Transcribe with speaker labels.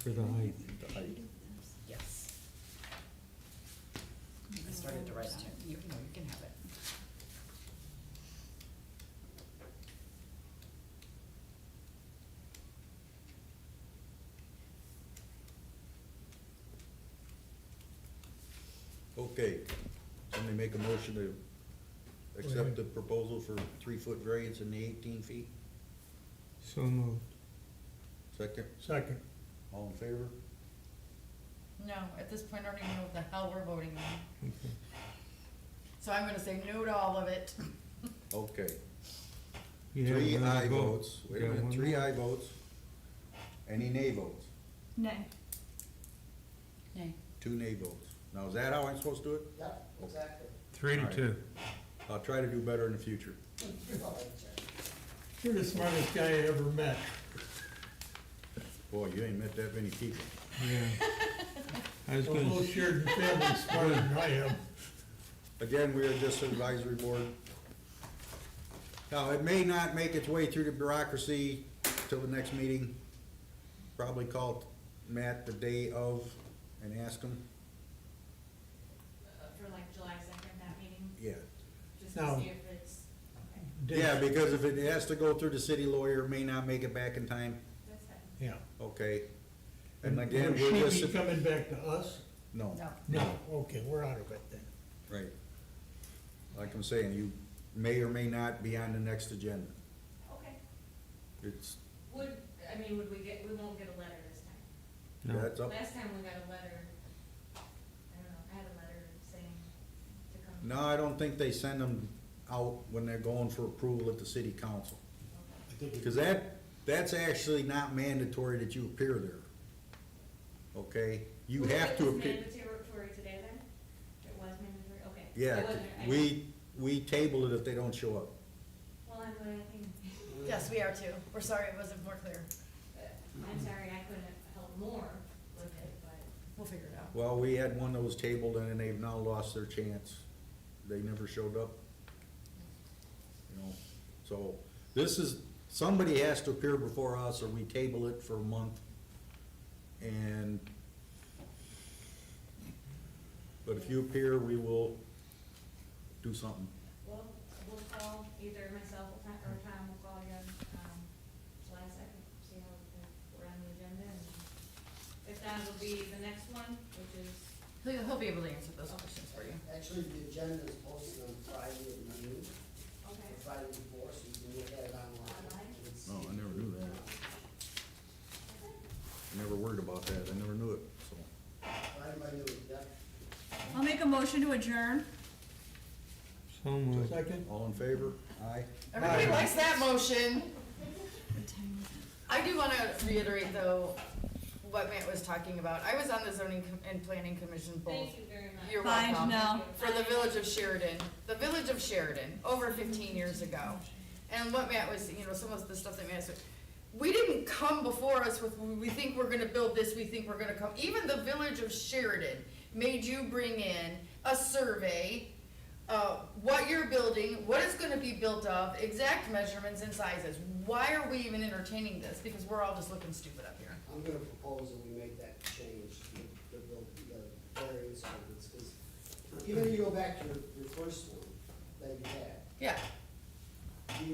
Speaker 1: For the height.
Speaker 2: the height.
Speaker 3: Yes. I started to write it too. You, no, you can have it.
Speaker 2: Okay, somebody make a motion to accept the proposal for three-foot variance in the eighteen feet?
Speaker 1: So moved.
Speaker 2: Second,
Speaker 4: Second,
Speaker 2: all in favor?
Speaker 3: No, at this point, I don't even know what the hell we're voting on. So I'm gonna say no to all of it.
Speaker 2: Okay,
Speaker 1: You have
Speaker 2: three
Speaker 1: another
Speaker 2: aye
Speaker 1: vote.
Speaker 2: votes, wait a
Speaker 1: You got
Speaker 2: minute,
Speaker 1: one
Speaker 2: three
Speaker 1: more?
Speaker 2: aye votes. Any nay votes?
Speaker 5: Nay.
Speaker 3: Nay.
Speaker 2: Two nay votes. Now, is that how I'm supposed to do it?
Speaker 6: Yep, exactly.
Speaker 1: Three to
Speaker 2: Alright.
Speaker 1: two.
Speaker 2: I'll try to do better in the future.
Speaker 4: you're the smartest guy I ever met.
Speaker 2: Boy, you ain't met that many people.
Speaker 1: Yeah. I was
Speaker 4: The
Speaker 1: gonna,
Speaker 4: whole
Speaker 1: s-
Speaker 4: Sheridan family's smarter than I am.
Speaker 2: Again, we are just an advisory board. Now, it may not make its way through the bureaucracy till the next meeting. Probably call Matt the day of and ask him.
Speaker 7: uh, for like July second, that meeting,
Speaker 2: Yeah.
Speaker 7: just
Speaker 4: No.
Speaker 7: to see if it's, okay,
Speaker 2: Yeah, because if it has to go through the city lawyer, it may not make it back in time.
Speaker 7: that's fine.
Speaker 4: Yeah.
Speaker 2: Okay. And
Speaker 4: And
Speaker 2: again, we're
Speaker 4: Would she
Speaker 2: just,
Speaker 4: be coming back to us?
Speaker 2: no,
Speaker 3: No.
Speaker 4: No, okay, we're out of it then.
Speaker 2: right. Like I'm saying, you may or may not be on the next agenda.
Speaker 7: Okay,
Speaker 2: It's,
Speaker 7: would, I mean, would we get, we won't get a letter this time.
Speaker 1: no,
Speaker 2: that's up.
Speaker 7: Last time we got a letter, I don't know, I had a letter saying to come.
Speaker 2: No, I don't think they send them out when they're going for approval at the city council. Cause that, that's actually not mandatory that you appear there. Okay, you
Speaker 7: Would
Speaker 2: have
Speaker 7: make
Speaker 2: to
Speaker 7: this
Speaker 2: appear.
Speaker 7: Mandatory today then? It was mandatory, okay. I
Speaker 2: Yeah,
Speaker 7: wasn't- I-
Speaker 2: we, we table it if they don't show up.
Speaker 7: Well, I'm glad I think,
Speaker 3: Yes, we are too. We're sorry it wasn't more clear.
Speaker 7: uh, I'm sorry, I couldn't help more with it, but.
Speaker 3: We'll figure it out.
Speaker 2: Well, we had one that was tabled and they've now lost their chance. They never showed up. You know, so this is, somebody has to appear before us or we table it for a month. And, but if you appear, we will do something.
Speaker 7: Well, we'll call either myself or Tom, or Tom will call you, um, July second, see how if we're on the agenda, and if not, it'll be the next one, which is,
Speaker 3: He'll, he'll be able to answer those questions for you.
Speaker 6: Actually, the agenda is posted on Friday at noon,
Speaker 7: okay,
Speaker 6: or Friday before, so you can look at it online.
Speaker 7: Online?
Speaker 6: and see.
Speaker 2: Oh, I never knew that. I never worried about that. I never knew it, so.
Speaker 6: Friday by noon, yep.
Speaker 5: I'll make a motion to adjourn.
Speaker 1: so moved.
Speaker 4: Second?
Speaker 2: All in favor? Aye.
Speaker 3: Everybody
Speaker 4: Aye.
Speaker 3: likes that motion. I do wanna reiterate though, what Matt was talking about. I was on the zoning com- and planning commission both
Speaker 7: thank you very much.
Speaker 3: You're
Speaker 5: Fine,
Speaker 3: welcome.
Speaker 5: no.
Speaker 3: For the village of Sheridan, the village of Sheridan, over fifteen years ago. And what Matt was, you know, some of the stuff that Matt said, we didn't come before us with, we think we're gonna build this, we think we're gonna come. Even the village of Sheridan made you bring in a survey, uh, what you're building, what it's gonna be built of, exact measurements and sizes. Why are we even entertaining this? Because we're all just looking stupid up here.
Speaker 6: I'm gonna propose that we make that change, the, the, the variance ordinance, because even if you go back to your, your first one that you had,
Speaker 3: Yeah.